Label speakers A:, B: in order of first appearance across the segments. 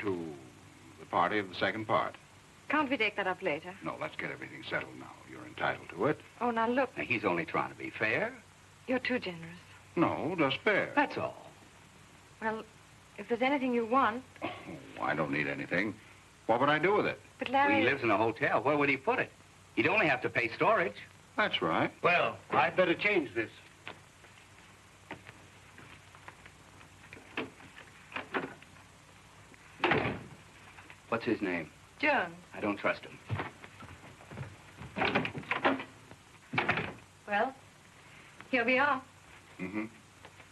A: to the party of the second part.
B: Can't we take that up later?
A: No, let's get everything settled now. You're entitled to it.
B: Oh, now look,
C: Now, he's only trying to be fair.
B: you're too generous.
A: No, just fair.
C: That's all.
B: Well, if there's anything you want,
A: Oh, I don't need anything. What would I do with it?
B: but
C: Well,
B: Larry.
C: he lives in a hotel. Where would he put it? He'd only have to pay storage.
A: That's right.
D: Well, I'd better change this.
C: What's his name?
B: Jones.
C: I don't trust him.
B: Well, here we are.
A: Mm-hmm.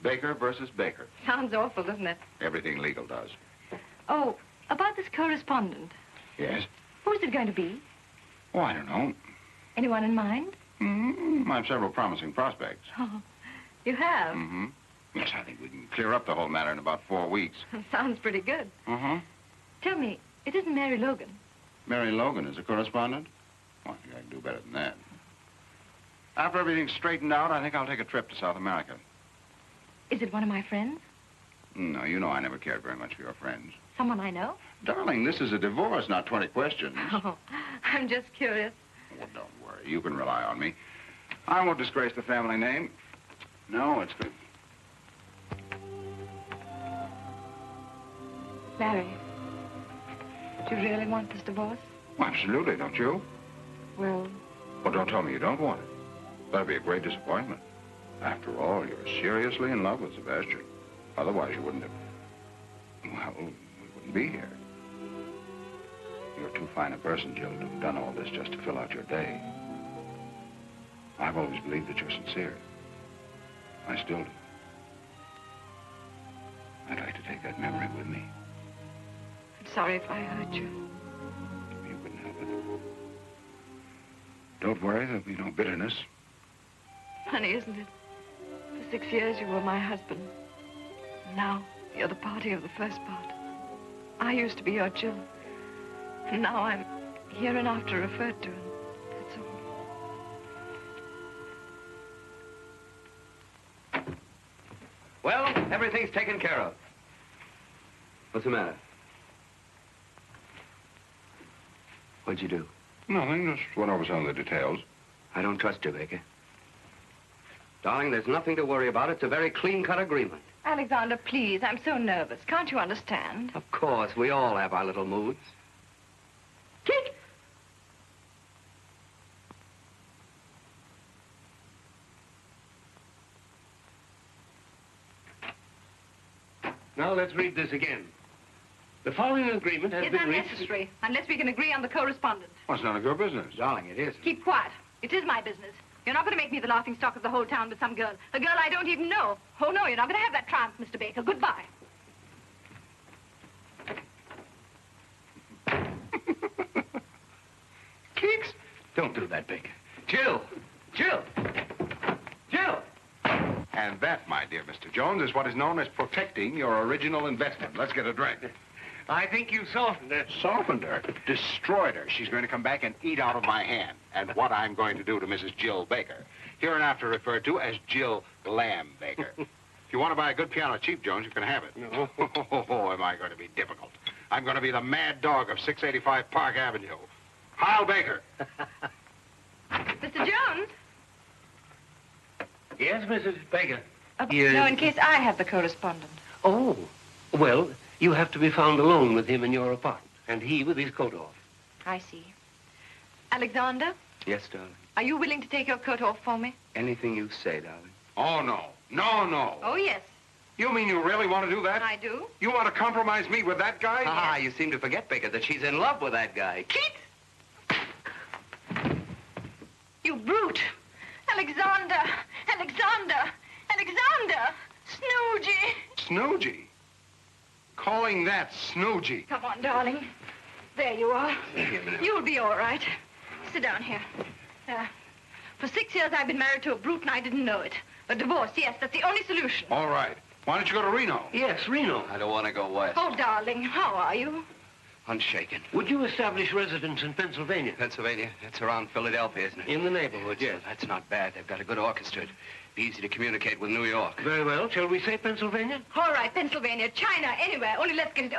A: Baker versus Baker.
B: Sounds awful, doesn't it?
A: Everything legal does.
B: Oh, about this correspondent.
A: Yes?
B: Who's it going to be?
A: Oh, I don't know.
B: Anyone in mind?
A: Mm-hmm. I have several promising prospects.
B: Oh, you have.
A: Mm-hmm. Yes, I think we can clear up the whole matter in about four weeks.
B: Sounds pretty good.
A: Uh-huh.
B: Tell me, it isn't Mary Logan.
A: Mary Logan is a correspondent? Well, I think I can do better than that. After everything's straightened out, I think I'll take a trip to South America.
B: Is it one of my friends?
A: No, you know I never cared very much for your friends.
B: Someone I know?
A: Darling, this is a divorce, not 20 questions.
B: Oh, I'm just curious.
A: Well, don't worry. You can rely on me. I won't disgrace the family name. No, it's good.
B: Larry, do you really want this divorce?
A: Well, absolutely, don't you?
B: Well,
A: Well, don't tell me you don't want it. That'd be a great disappointment. After all, you're seriously in love with Sebastian. Otherwise, you wouldn't have. Well, we wouldn't be here. You're too fine a person, Jill, to have done all this just to fill out your day. I've always believed that you're sincere. I still do. I'd like to take that memory with me.
B: I'm sorry if I hurt you.
A: You couldn't help it. Don't worry, there'll be no bitterness.
B: Funny, isn't it? For six years you were my husband. Now you're the party of the first part. I used to be your Jill. And now I'm hereinafter referred to. And that's all.
C: Well, everything's taken care of. What's the matter? What'd you do?
A: Nothing, just went over some of the details.
C: I don't trust you, Baker. Darling, there's nothing to worry about. It's a very clean-cut agreement.
B: Alexander, please, I'm so nervous. Can't you understand?
C: Of course, we all have our little moods.
B: Kick!
D: Now let's read this again. The following agreement has
B: It's
D: been reached.
B: unnecessary, unless we can agree on the correspondence.
A: Well, it's none of your business.
C: Darling, it is.
B: Keep quiet. It is my business. You're not going to make me the laughing stock of the whole town with some girl. A girl I don't even know. Oh, no, you're not going to have that triumph, Mr. Baker. Goodbye.
C: Kicks?
D: Don't do that, Baker. Jill! Jill! Jill!
A: And that, my dear Mr. Jones, is what is known as protecting your original investment. Let's get a drink.
D: I think you softened it.
A: Softened her, destroyed her. She's going to come back and eat out of my hand. And what I'm going to do to Mrs. Jill Baker, hereinafter referred to as Jill Lamb Baker. if you want to buy a good piano cheap, Jones, you can have it.
D: No.
A: Oh, am I going to be difficult? I'm going to be the mad dog of 685 Park Avenue. Heil Baker.
B: Mr. Jones?
D: Yes, Mrs. Baker.
B: Uh,
D: Yes.
B: No, in case I have the correspondent.
D: Oh. Well, you have to be found alone with him in your apartment, and he with his coat off.
B: I see. Alexander,
C: Yes, darling.
B: are you willing to take your coat off for me?
C: Anything you say, darling.
A: Oh, no. No, no.
B: Oh, yes.
A: You mean you really want to do that?
B: I do.
A: You want to compromise me with that guy?
C: Ah, you seem to forget, Baker, that she's in love with that guy. Keats?
B: You brute. Alexander, Alexander, Alexander, Snoogey.
A: Snoogey. Calling that Snoogey.
B: Come on, darling. There you are. You'll be all right. Sit down here. Uh, for six years, I've been married to a brute, and I didn't know it. A divorce, yes, that's the only solution.
A: All right. Why don't you go to Reno?
D: Yes, Reno.
C: I don't want to go west.
B: Oh, darling, how are you?
C: Unshaken.
D: Would you establish residence in Pennsylvania?
C: Pennsylvania, that's around Philadelphia, isn't it?
D: In the neighborhood, yes.
C: That's not bad. They've got a good orchestra. It'd be easy to communicate with New York.
D: Very well. Shall we say Pennsylvania?
B: All right, Pennsylvania, China, anywhere. Only let's get it